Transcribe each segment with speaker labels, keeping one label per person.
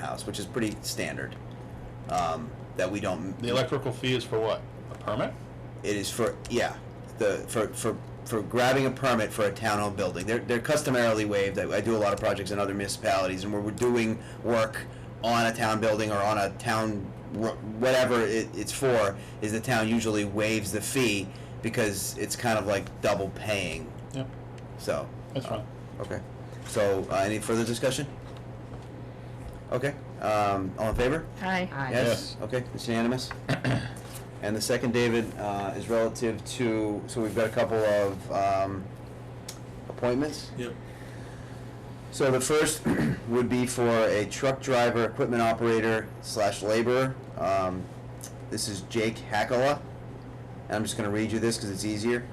Speaker 1: cost, which is pretty standard. Um, that we don't.
Speaker 2: The electrical fee is for what? A permit?
Speaker 1: It is for yeah, the for for for grabbing a permit for a town-owned building. They're they're customarily waived. I, I do a lot of projects in other municipalities, and where we're doing work on a town building or on a town wh- whatever it, it's for, is the town usually waives the fee because it's kind of like double paying.
Speaker 2: Yeah,
Speaker 1: So
Speaker 2: that's fine.
Speaker 1: okay. So uh, any further discussion? Okay. Um, all in favor?
Speaker 3: Aye.
Speaker 4: Aye.
Speaker 1: Yes, okay, it's unanimous. And the second, David, uh, is relative to, so we've got a couple of um, appointments.
Speaker 5: Yep.
Speaker 1: So the first would be for a truck driver, equipment operator slash laborer. Um, This is Jake Hackala. And I'm just gonna read you this because it's easier.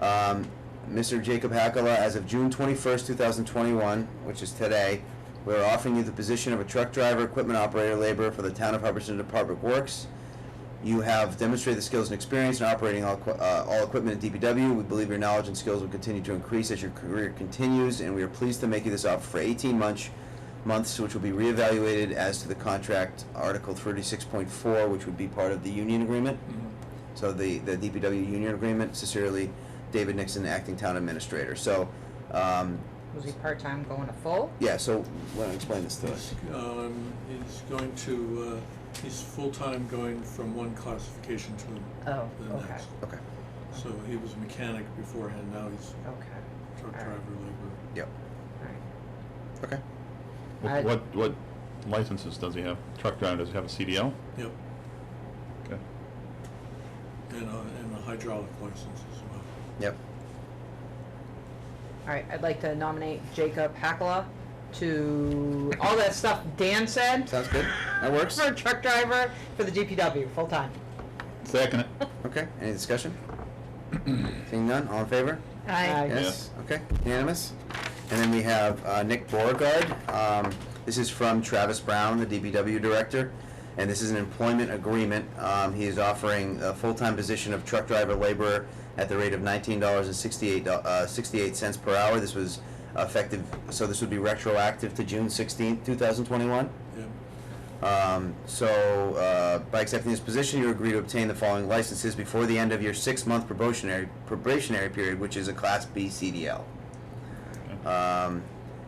Speaker 1: Um, Mr. Jacob Hackala, as of June twenty-first, two thousand twenty-one, which is today, we are offering you the position of a truck driver, equipment operator, laborer for the town of Hubbardston Department of Works. You have demonstrated the skills and experience in operating all, equi- uh, all equipment at DPW. We believe your knowledge and skills will continue to increase as your career continues, and we are pleased to make you this offer for 18 months, months, which will be reevaluated as to the contract Article 36.4, which would be part of the union agreement. So the, the DPW union agreement, sincerely, David Nixon, acting town administrator. So, um,
Speaker 4: Was he part-time going to full?
Speaker 1: yeah, so let me explain this to us.
Speaker 5: He's, um, he's going to, uh, he's full-time going from one classification to
Speaker 4: Oh,
Speaker 5: the
Speaker 4: okay,
Speaker 5: next.
Speaker 1: Okay,
Speaker 5: So he was a mechanic beforehand, now he's
Speaker 4: okay,
Speaker 5: truck
Speaker 4: All right.
Speaker 5: driver laborer.
Speaker 1: yep,
Speaker 4: alright.
Speaker 1: okay.
Speaker 4: I-
Speaker 2: What, what, what licenses does he have? Truck driver, does he have a CDL?
Speaker 5: Yep,
Speaker 2: Okay.
Speaker 5: and, uh, and a hydraulic license as well.
Speaker 1: Yep,
Speaker 4: Alright, I'd like to nominate Jacob Hackala to, all that stuff Dan said.
Speaker 1: sounds good. That works.
Speaker 4: For a truck driver for the DPW, full-time.
Speaker 2: Second it.
Speaker 1: Okay, any discussion? Seeing none, all in favor?
Speaker 3: Aye.
Speaker 4: Aye.
Speaker 1: Yes, okay, unanimous. And then we have uh, Nick Beauregard. Um, This is from Travis Brown, the DBW director, and this is an employment agreement. Um, He is offering a full-time position of truck driver laborer at the rate of nineteen dollars and sixty-eight, uh, sixty-eight cents per hour. This was effective, so this would be retroactive to June sixteenth, two thousand twenty-one.
Speaker 5: Yep,
Speaker 1: Um, so, uh, by accepting this position, you agree to obtain the following licenses before the end of your six-month probationary, probationary period, which is a Class B CDL. Um,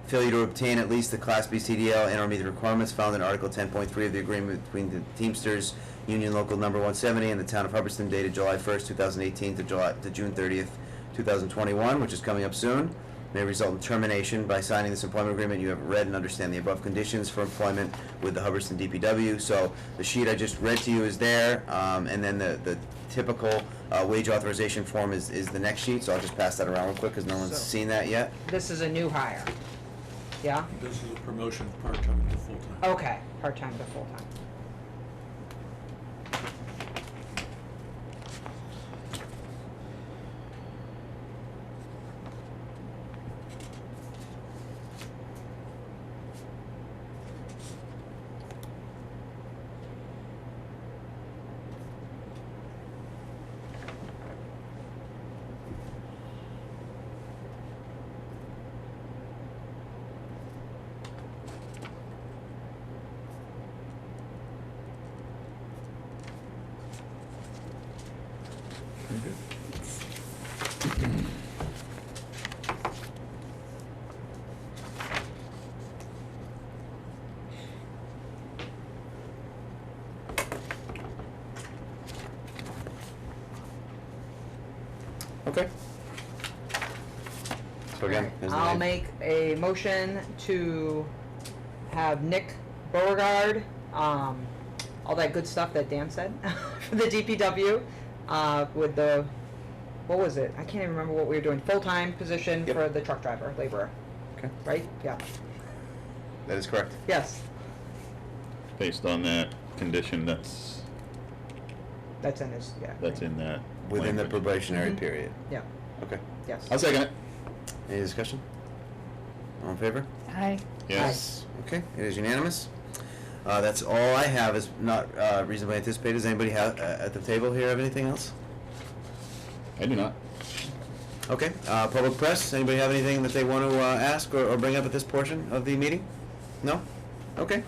Speaker 1: failure to obtain at least the Class B CDL and or meet the requirements found in Article ten point three of the agreement between the Teamsters Union Local Number one seventy and the Town of Hubbardston dated July first, two thousand eighteen to July, to June thirtieth, two thousand twenty-one, which is coming up soon, may result in termination. By signing this employment agreement, you have read and understand the above conditions for employment with the Hubbardston DPW. So the sheet I just read to you is there, um, and then the, the typical, uh, wage authorization form is, is the next sheet, so I'll just pass that around real quick, cause no one's
Speaker 4: So-
Speaker 1: seen that yet.
Speaker 4: This is a new hire. Yeah?
Speaker 5: this is a promotion of part-time to full-time.
Speaker 4: Okay, part-time to full-time.
Speaker 1: Okay. So again,
Speaker 4: Alright,
Speaker 1: is the
Speaker 4: I'll
Speaker 1: name-
Speaker 4: make a motion to have Nick Beauregard, um, all that good stuff that Dan said, for the DPW, uh, with the, what was it? I can't even remember what we were doing, full-time position
Speaker 1: Yep.
Speaker 4: for the truck driver, laborer,
Speaker 1: Okay,
Speaker 4: right? Yeah,
Speaker 1: that is correct.
Speaker 4: yes,
Speaker 2: Based on that condition, that's,
Speaker 4: that's in his, yeah.
Speaker 2: that's in that.
Speaker 1: Within the
Speaker 2: language.
Speaker 1: probationary
Speaker 4: Mhm.
Speaker 1: period.
Speaker 4: Yeah,
Speaker 1: Okay.
Speaker 4: yes.
Speaker 2: I'll second it.
Speaker 1: Any discussion? All in favor?
Speaker 3: Aye.
Speaker 2: Yes.
Speaker 1: Okay, it is unanimous. Uh, that's all I have is not uh, reasonably anticipated. Does anybody have, uh, at the table here have anything else?
Speaker 2: I do not.
Speaker 1: Okay, uh, public press, anybody have anything that they want to, uh, ask or, or bring up at this portion of the meeting? No? Okay.